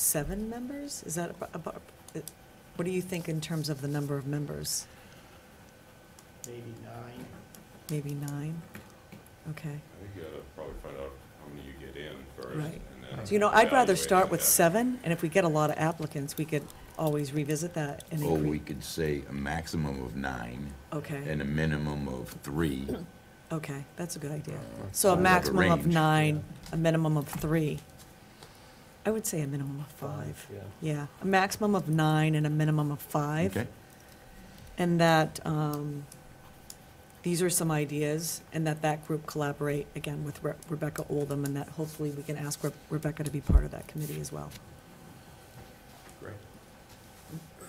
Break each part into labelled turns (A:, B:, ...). A: seven members? Is that abo- about, it- what do you think in terms of the number of members?
B: maybe nine.
A: Maybe nine? Okay.
C: I think you gotta probably find out how many you get in first.
A: Right.
C: and then
A: So, you know, I'd rather
C: evaluate
A: start with
C: that.
A: seven, and if we get a lot of applicants, we could always revisit that and
D: Or we
A: increase.
D: could say a maximum of nine
A: Okay,
D: and a minimum of three.
A: okay, that's a good idea.
D: Uh,
A: So a
D: kind of a
A: maximum of
D: range,
A: nine, a minimum of three. I would say a minimum of five.
E: Yeah.
A: Yeah, a maximum of nine and a minimum of five.
D: Okay,
A: And that, um, these are some ideas, and that that group collaborate, again, with Re- Rebecca Oldham, and that hopefully we can ask Re- Rebecca to be part of that committee as well.
B: Great.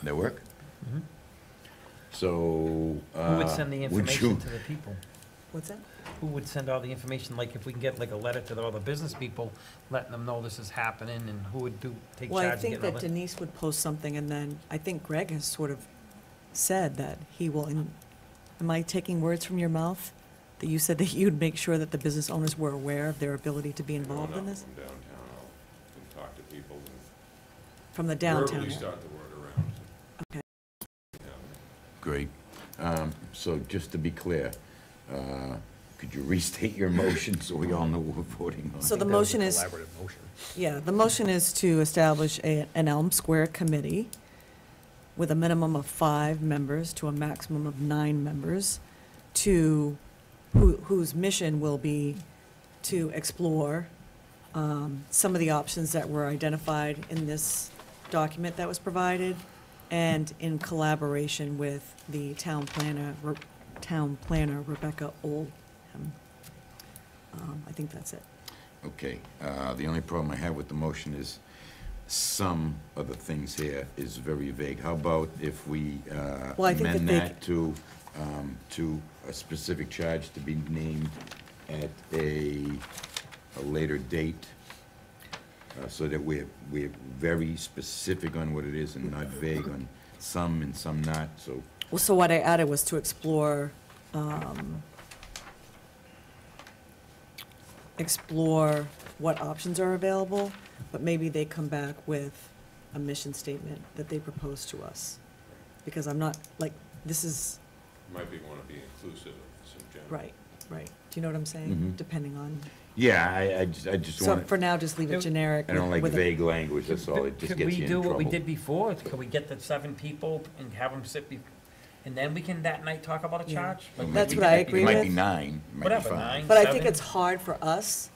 D: that work?
E: Mhm.
D: So,
E: Who would
D: uh,
E: send the
D: would you-
E: information to the people?
A: What's that?
E: Who would send all the information, like if we can get like a letter to all the business people, letting them know this is happening, and who would do, take
A: Well, I
E: charge of
A: think
E: getting all
A: that
E: this?
A: Denise would post something, and then I think Greg has sort of said that he will, in- am I taking words from your mouth? That you said that you'd make sure that the business owners were aware of their ability to be
C: You know,
A: involved in
C: when
A: this?
C: I'm Downtown, I'll can talk to people and
A: From the
C: verbally
A: downtown?
C: start the word around.
A: Okay.
C: Yeah.
D: Great. Um, So just to be clear, uh, could you restate your motion so we all know what we're voting on?
A: So the motion is.
F: Collaborative motion.
A: Yeah, the motion is to establish a, an Elm Square committee with a minimum of five members to a maximum of nine members to, who, whose mission will be to explore, um, some of the options that were identified in this document that was provided and in collaboration with the town planner, Re- town planner Rebecca Oldham. Um, I think that's it.
D: Okay, uh, the only problem I have with the motion is some of the things here is very vague. How about if we uh,
A: Well, I think
D: amend
A: that they-
D: that to, um, to a specific charge to be named at a, a later date? uh, So that we're, we're very specific on what it is and not vague on some and some not, so
A: Well, so what I added was to explore, um, explore what options are available, but maybe they come back with a mission statement that they propose to us. Because I'm not, like, this is,
C: Might be, wanna be inclusive of some general.
A: right, right. Do you know what I'm saying?
D: Mhm.
A: Depending on,
D: Yeah, I, I just, I just
A: so
D: want,
A: for now, just leave it generic.
D: I don't like
A: with a-
D: vague language, that's all, it just
E: Could
D: gets you
E: we
D: in
E: do
D: trouble.
E: what we did before? Could we get the seven people and have them sit, be- and then we can that night talk about a
A: Yeah.
E: charge?
D: It might
A: That's
D: be-
A: what I agree
D: It might be
A: with.
D: nine, it might be
E: Whatever,
D: five.
E: nine.
A: But I think
E: Seven.
A: it's hard for us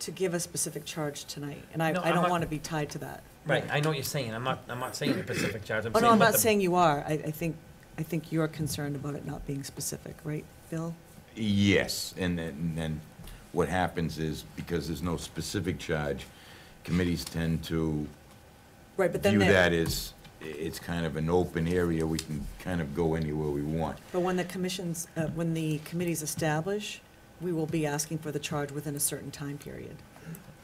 A: to give a specific charge tonight, and I,
E: No,
A: I
E: I'm
A: don't
E: not-
A: want to be tied to that.
E: Right, I know what you're saying, I'm not, I'm not saying the Pacific charge, I'm
A: Oh,
E: saying.
A: no, I'm
E: what
A: not
E: the-
A: saying you are. I, I think, I think you're concerned about it not being specific, right, Bill?
D: Yes, and then, and then what happens is, because there's no specific charge, committees tend to
A: Right, but then,
D: view that
A: they-
D: as, i- it's kind of an open area, we can kind of go anywhere we want.
A: but when the commissions, uh, when the committees establish, we will be asking for the charge within a certain time period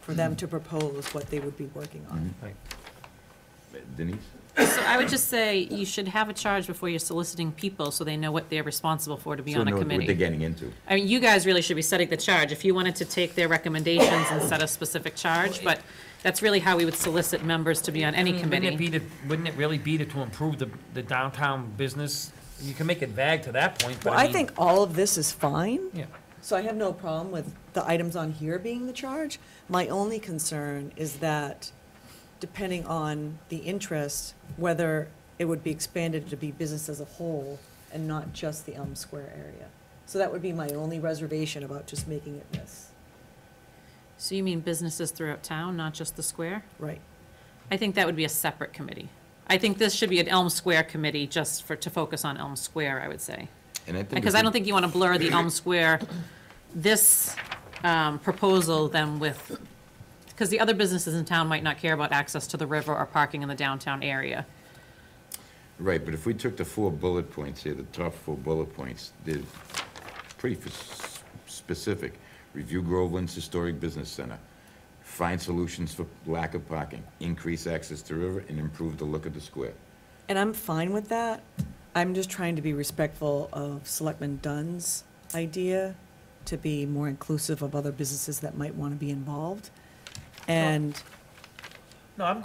A: for them to propose what they would be working on.
D: Mm-hmm.
E: Right.
D: Denise?
G: So I would just say, you should have a charge before you're soliciting people, so they know what they're responsible for to be
D: So
G: on a
D: know What they're
G: committee.
D: getting into.
G: I mean, you guys really should be setting the charge, if you wanted to take their recommendations and set a specific charge, but that's really how we would solicit members to be on
E: I
G: any
E: mean, Wouldn't it be
G: committee.
E: to, wouldn't it really be to, to improve the, the downtown business? You can make it vague to that point, but
A: Well,
E: I
A: I
E: mean.
A: think all of this is fine,
E: Yeah.
A: so I have no problem with the items on here being the charge. My only concern is that, depending on the interest, whether it would be expanded to be business as a whole and not just the Elm Square area. So that would be my only reservation about just making it this,
G: So you mean businesses throughout town, not just the square?
A: right?
G: I think that would be a separate committee. I think this should be an Elm Square committee, just for, to focus on Elm Square, I would say.
D: And I think.
G: Because
D: if
G: I
D: we-
G: don't think you want to blur the Elm Square, this um, proposal then with, because the other businesses in town might not care about access to the river or parking in the downtown area.
D: Right, but if we took the four bullet points here, the top four bullet points, they're pretty f- specific. Review Groveland's historic business center, find solutions for lack of parking, increase access to river, and improve the look of the square.
A: And I'm fine with that. I'm just trying to be respectful of Selectman Dunn's idea to be more inclusive of other businesses that might want to be involved. And
E: No, I'm good